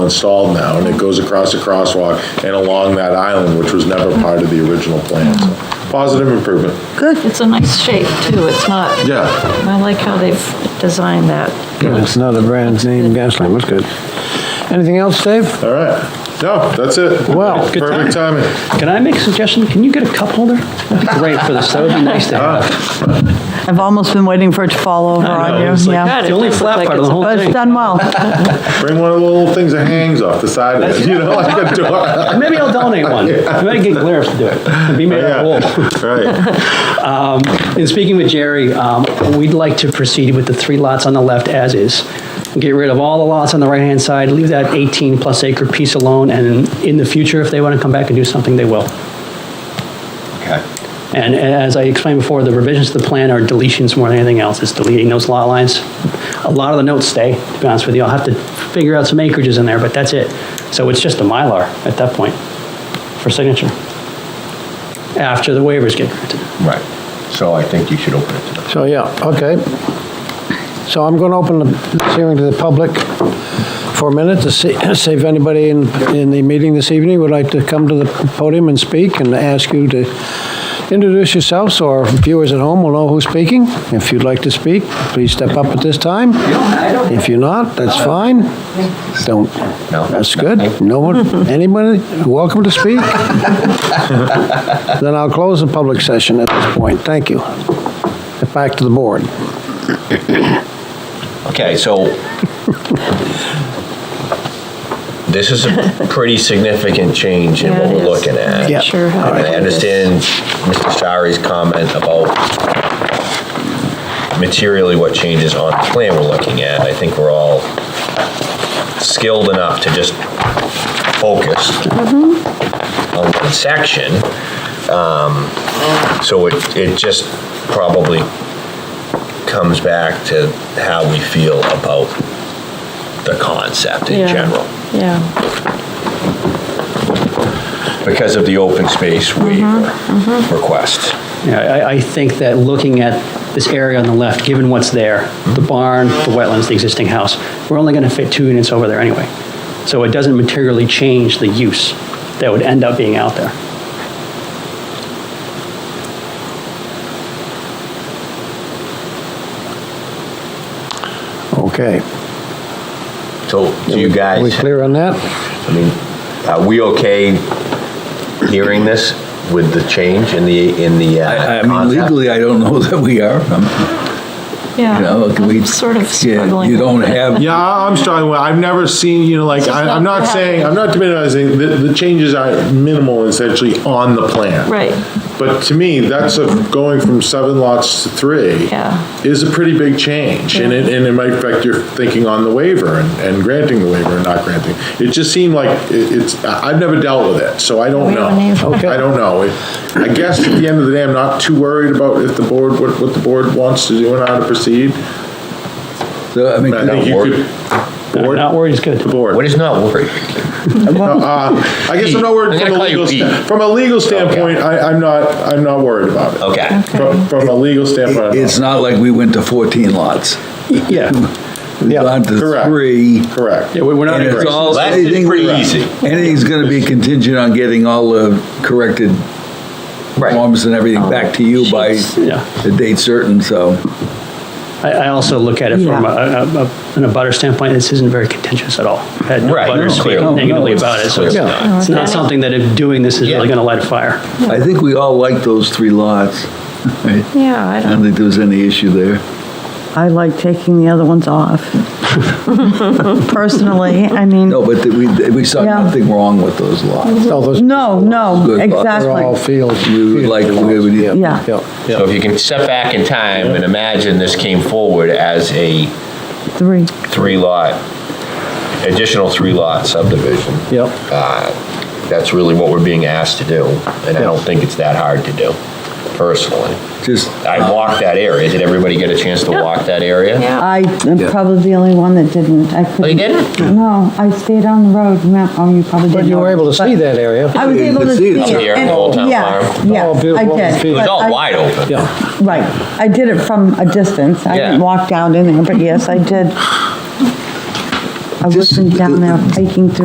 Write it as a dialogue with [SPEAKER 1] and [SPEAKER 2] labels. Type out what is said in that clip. [SPEAKER 1] installed now, and it goes across the crosswalk and along that island, which was never part of the original plan. So, Positive improvement,
[SPEAKER 2] It's a nice shape, too. It's not,
[SPEAKER 1] yeah.
[SPEAKER 2] I like how they've designed that.
[SPEAKER 3] Yeah, It's another brand name gas lamp, that's good. Anything else, Dave?
[SPEAKER 1] All right. No, that's it.
[SPEAKER 3] Wow.
[SPEAKER 4] Good time.
[SPEAKER 1] Perfect timing.
[SPEAKER 4] Can I make a suggestion? Can you get a cup holder? That'd be great for this, that would be nice to have.
[SPEAKER 5] I've almost been waiting for it to fall over
[SPEAKER 4] I know,
[SPEAKER 5] on
[SPEAKER 4] it's
[SPEAKER 5] you,
[SPEAKER 4] like-
[SPEAKER 5] yeah.
[SPEAKER 4] It's the only
[SPEAKER 2] does look
[SPEAKER 4] flat
[SPEAKER 2] like
[SPEAKER 4] part of
[SPEAKER 2] it's
[SPEAKER 4] the
[SPEAKER 2] a
[SPEAKER 4] whole
[SPEAKER 5] But it's
[SPEAKER 4] thing.
[SPEAKER 5] done well.
[SPEAKER 1] Bring one of the little things that hangs off the side of it, you know, like a door.
[SPEAKER 4] Maybe I'll donate one. I might get Glaris to do it. Be made
[SPEAKER 1] Oh, Yeah,
[SPEAKER 4] of wool.
[SPEAKER 1] right.
[SPEAKER 4] In speaking with Jerry, um, we'd like to proceed with the three lots on the left as is. Get rid of all the lots on the right-hand side, leave that 18-plus acre piece alone, and in the future, if they want to come back and do something, they will. And as I explained before, the revisions to the plan are deletions more than anything else. It's deleting those lot lines. A lot of the notes stay, to be honest with you. I'll have to figure out some acreages in there, but that's it. So it's just a Mylar at that point for signature, after the waivers get granted.
[SPEAKER 6] Right. So I think you should open it to the
[SPEAKER 3] So, yeah, okay. So I'm going to open the hearing to the public for a minute to see, see if anybody in, in the meeting this evening would like to come to the podium and speak and ask you to introduce yourselves, so our viewers at home will know who's speaking. If you'd like to speak, please step up at this time. If you're not, that's fine. Don't,
[SPEAKER 6] No.
[SPEAKER 3] that's good. No one, anybody, welcome to speak. Then I'll close the public session at this point. Thank you. Back to the board.
[SPEAKER 6] Okay, so this is a pretty significant change in
[SPEAKER 2] Yeah,
[SPEAKER 6] what
[SPEAKER 2] it
[SPEAKER 6] we're
[SPEAKER 2] is.
[SPEAKER 6] looking at.
[SPEAKER 3] Yeah.
[SPEAKER 2] Sure how
[SPEAKER 6] And
[SPEAKER 2] to
[SPEAKER 6] I
[SPEAKER 2] do this.
[SPEAKER 6] understand Mr. Shari's comment about materially what changes on the plan we're looking at. I think we're all skilled enough to just focus on one section. Um, So it, it just probably comes back to how we feel about the concept in
[SPEAKER 2] Yeah.
[SPEAKER 6] general
[SPEAKER 2] Yeah,
[SPEAKER 6] because of the open space waiver request.
[SPEAKER 4] Yeah, I, I think that looking at this area on the left, given what's there, the barn, the wetlands, the existing house, we're only going to fit two units over there anyway. So it doesn't materially change the use that would end up being out there.
[SPEAKER 3] Okay.
[SPEAKER 6] So do you
[SPEAKER 3] Are we
[SPEAKER 6] guys,
[SPEAKER 3] clear on that?
[SPEAKER 6] I mean, are we okay hearing this with the change in the, in the
[SPEAKER 7] I
[SPEAKER 6] uh,
[SPEAKER 7] I mean,
[SPEAKER 6] concept?
[SPEAKER 7] legally, I don't know that we are, I'm-
[SPEAKER 2] yeah.
[SPEAKER 7] you know, we.
[SPEAKER 2] I'm Sort of
[SPEAKER 7] yeah,
[SPEAKER 2] struggling.
[SPEAKER 7] You
[SPEAKER 2] with
[SPEAKER 7] don't
[SPEAKER 2] it.
[SPEAKER 7] have,
[SPEAKER 1] Yeah, I- I'm struggling with, I've never seen, you know, like, I- I'm not saying, I'm not minimizing, the, the changes are minimal essentially on the plan.
[SPEAKER 2] Right,
[SPEAKER 1] But to me, that's a, going from seven lots to three.
[SPEAKER 2] Yeah.
[SPEAKER 1] Is a pretty big change, and it, and it might affect your thinking on the waiver and, and granting the waiver and not granting. It just seemed like it- it's, I- I've never dealt with it, so I don't
[SPEAKER 2] We
[SPEAKER 1] know.
[SPEAKER 2] haven't either.
[SPEAKER 1] I don't know. It- I guess at the end of the day, I'm not too worried about if the board, what, what the board wants to do and how to proceed.
[SPEAKER 7] so, uh, I mean,
[SPEAKER 1] I think you
[SPEAKER 6] worried.
[SPEAKER 1] could. Board,
[SPEAKER 4] Not worried, it's good.
[SPEAKER 1] the board.
[SPEAKER 6] What is not worried?
[SPEAKER 1] Uh, I guess I'm not worried
[SPEAKER 6] I'm
[SPEAKER 1] from
[SPEAKER 6] gonna
[SPEAKER 1] a
[SPEAKER 6] call you
[SPEAKER 1] legal,
[SPEAKER 6] Pete.
[SPEAKER 1] sta- from a legal standpoint, I, I'm not, I'm not worried about it.
[SPEAKER 6] Okay.
[SPEAKER 1] From, from a legal standpoint. I'm not
[SPEAKER 7] it's not like we went to 14 lots.
[SPEAKER 4] Yeah,
[SPEAKER 7] We've gone to
[SPEAKER 1] Correct.
[SPEAKER 7] three.
[SPEAKER 1] Correct.
[SPEAKER 4] yeah, we- we're not,
[SPEAKER 7] And it's all,
[SPEAKER 6] Last is
[SPEAKER 7] anything,
[SPEAKER 6] pretty easy.
[SPEAKER 7] anything's gonna be contingent on getting all the corrected
[SPEAKER 6] Right.
[SPEAKER 7] forms and everything back to you by
[SPEAKER 2] sheets.
[SPEAKER 4] yeah.
[SPEAKER 7] the date certain, so.
[SPEAKER 4] I, I also look at it from a, a- a- an abutter standpoint, this isn't very contentious at all. Had no
[SPEAKER 6] Right,
[SPEAKER 4] butters
[SPEAKER 6] no,
[SPEAKER 4] speak
[SPEAKER 6] clearly.
[SPEAKER 4] negatively about it, so it's
[SPEAKER 6] Clearly
[SPEAKER 4] not- it's not something that if doing this is really
[SPEAKER 6] Yeah.
[SPEAKER 4] going to light a fire.
[SPEAKER 7] I think we all like those three lots. I
[SPEAKER 2] yeah, I don't,
[SPEAKER 7] don't think there was any issue there.
[SPEAKER 5] I like taking the other ones off. Personally, I mean,
[SPEAKER 7] No, but we, we saw
[SPEAKER 5] Yeah.
[SPEAKER 7] nothing wrong with those lots.
[SPEAKER 3] No, those-
[SPEAKER 5] no, no,
[SPEAKER 7] Good.
[SPEAKER 3] They're all
[SPEAKER 5] exactly.
[SPEAKER 3] fields.
[SPEAKER 7] We would like, we would,
[SPEAKER 5] Yeah.
[SPEAKER 3] Yeah,
[SPEAKER 6] So if you can step back in time and imagine this came forward as a
[SPEAKER 5] Three.
[SPEAKER 6] three lot, additional three lot subdivision,
[SPEAKER 3] yeah.
[SPEAKER 6] that's really what we're being asked to do. And I don't think it's that hard to do, personally.
[SPEAKER 7] just.
[SPEAKER 6] I walked that area. Did everybody get a chance to walk that area?
[SPEAKER 2] yeah.
[SPEAKER 5] I am
[SPEAKER 7] Yeah.
[SPEAKER 5] probably the only one that didn't. I couldn't.
[SPEAKER 6] you didn't?
[SPEAKER 5] No, I stayed on the road. No, oh, you probably
[SPEAKER 3] But
[SPEAKER 5] didn't.
[SPEAKER 3] you were able to see that area.
[SPEAKER 5] I was
[SPEAKER 7] You
[SPEAKER 5] able
[SPEAKER 7] could
[SPEAKER 5] to
[SPEAKER 7] see
[SPEAKER 5] see
[SPEAKER 7] it.
[SPEAKER 5] it.
[SPEAKER 6] Up here in
[SPEAKER 5] and-
[SPEAKER 6] Old Town
[SPEAKER 5] yeah,
[SPEAKER 6] Farm.
[SPEAKER 5] Yeah,
[SPEAKER 3] Oh,
[SPEAKER 5] I
[SPEAKER 3] beautiful.
[SPEAKER 5] did.
[SPEAKER 3] It
[SPEAKER 6] It was
[SPEAKER 5] but I-
[SPEAKER 6] all wide open.
[SPEAKER 3] Yeah,
[SPEAKER 5] Right. I did it from a distance. I
[SPEAKER 6] Yeah.
[SPEAKER 5] didn't walk down in there, but yes, I did. I
[SPEAKER 7] Just-
[SPEAKER 5] wasn't down there hiking through